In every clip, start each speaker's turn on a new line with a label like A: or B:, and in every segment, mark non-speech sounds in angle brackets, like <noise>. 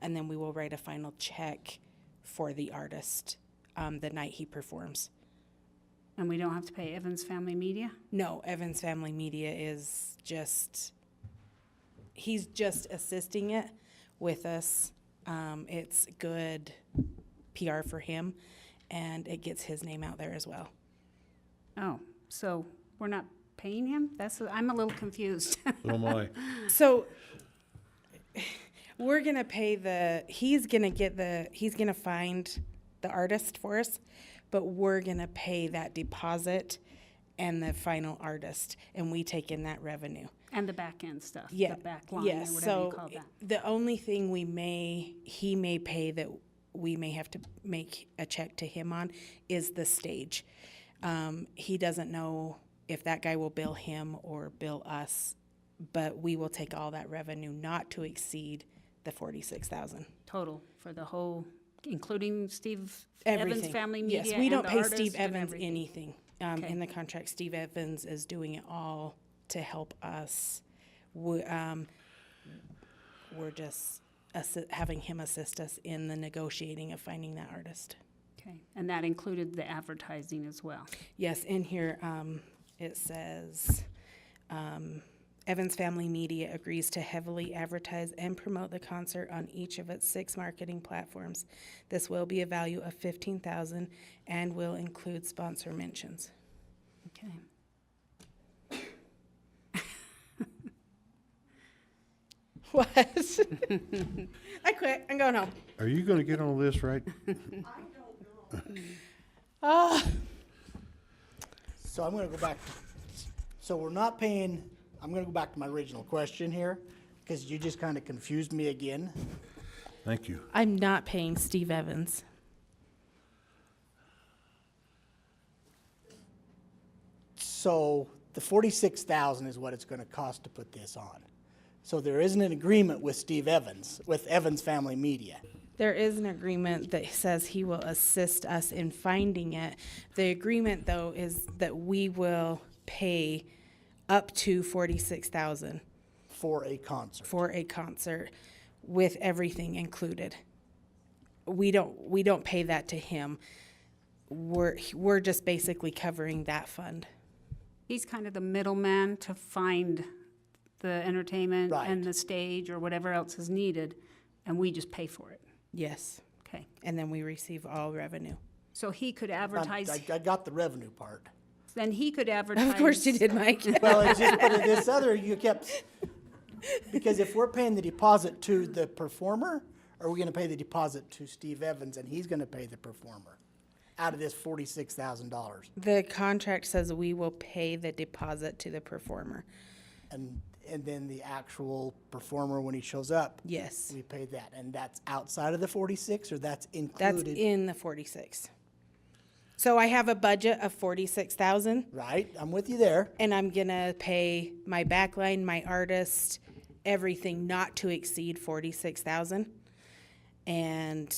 A: and then we will write a final check for the artist um, the night he performs.
B: And we don't have to pay Evans Family Media?
A: No, Evans Family Media is just, he's just assisting it with us. Um, it's good PR for him and it gets his name out there as well.
B: Oh, so we're not paying him? That's, I'm a little confused. <laughs>
C: So am I.
A: So we're gonna pay the, he's gonna get the, he's gonna find the artist for us, but we're gonna pay that deposit and the final artist and we take in that revenue.
B: And the back end stuff,
A: Yeah.
B: the back line, or
A: yes.
B: whatever
A: so
B: you call
A: i-
B: that.
A: the only thing we may he may pay that we may have to make a check to him on is the stage. Um, he doesn't know if that guy will bill him or bill us, but we will take all that revenue not to exceed the forty six thousand.
B: Total, for the whole, including Steve Evans
A: Everything.
B: Family Media
A: yes, we
B: and
A: don't
B: the
A: pay
B: artist
A: Steve
B: and
A: Evans
B: everything.
A: anything um,
B: Okay.
A: in the contract. Steve Evans is doing it all to help us. We, um, we're just assi- having him assist us in the negotiating of finding that artist.
B: Okay, and that included the advertising as well.
A: Yes, in here um, it says um, Evans Family Media agrees to heavily advertise and promote the concert on each of its six marketing platforms. This will be a value of fifteen thousand and will include sponsor mentions. <laughs>
B: Okay.
A: What? <laughs> I quit. I'm going home.
C: <laughs> Are you gonna get on this right?
A: Oh,
D: So I'm gonna go back, so we're not paying, I'm gonna go back to my original question here, because you just kind of confused me again.
C: Thank you.
A: I'm not paying Steve Evans.
D: So the forty-six thousand is what it's gonna cost to put this on. So there isn't an agreement with Steve Evans, with Evans Family Media.
A: There is an agreement that says he will assist us in finding it. The agreement, though, is that we will pay up to forty-six thousand
D: for a concert.
A: for a concert with everything included. We don't we don't pay that to him. We're we're just basically covering that fund.
B: He's kind of the middleman to find the entertainment
D: Right.
B: and the stage or whatever else is needed, and we just pay for it.
A: Yes,
B: Okay,
A: and then we receive all revenue.
B: so he could
D: I,
B: advertise,
D: I- I got the revenue part.
B: then he could advertise.
A: Of course you did, Mike.
D: Well, it's just, but this other, you kept, because if we're paying the deposit to the performer, are we gonna pay the deposit to Steve Evans and he's gonna pay the performer? Out of this forty-six thousand dollars,
A: <laughs> the contract says we will pay the deposit to the performer.
D: and, and then the actual performer, when he shows up,
A: Yes.
D: we pay that, and that's outside of the forty-six, or that's
A: That's
D: included?
A: in the 46. So I have a budget of 46,000
D: Right, I'm with you there,
A: and I'm going to pay my backline, my artist, everything not to exceed 46,000. And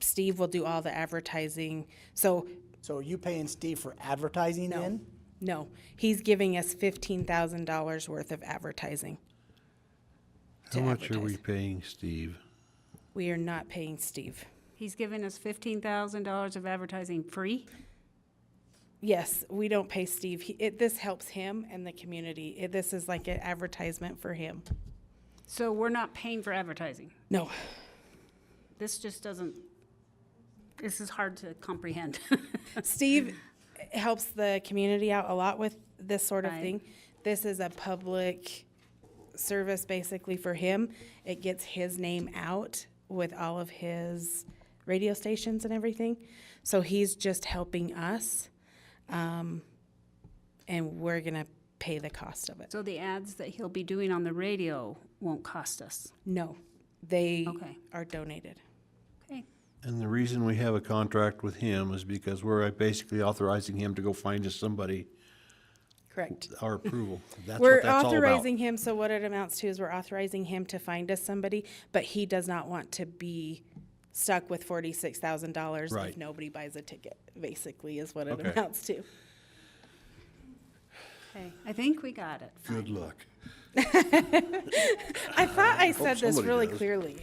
A: Steve will do all the advertising. So
D: so are you paying Steve for advertising then?
A: no, he's giving us $15,000 worth of advertising.
C: How
A: to
C: much are we
A: advertise.
C: paying Steve?
A: We are not paying Steve.
B: He's giving us fifteen thousand dollars of advertising free.
A: Yes, we don't pay Steve. He, it, this helps him and the community. It, this is like an advertisement for him.
B: So we're not paying for advertising.
A: No.
B: This just doesn't, this is hard to comprehend. <laughs>
A: Steve helps the community out a lot with this sort of
B: Right.
A: thing. This is a public service basically for him. It gets his name out with all of his radio stations and everything. So he's just helping us. Um, and we're going to pay the cost of it.
B: So the ads that he'll be doing on the radio won't cost us.
A: No, they
B: Okay.
A: are donated.
B: Okay,
C: And the reason we have a contract with him is because we're uh, basically authorizing him to go find us somebody,
A: Correct.
C: our approval. That's
A: We're
C: what that's all about.
A: authorizing him, so what it amounts to is we're authorizing him to find us somebody, but he does not want to be stuck with forty-six thousand dollars if
C: Right.
A: nobody buys a ticket, basically is what it
C: Okay.
A: amounts to.
B: okay, I think we got it.
C: Good luck.
A: I thought I said this
C: somebody
A: really
C: does.
A: clearly.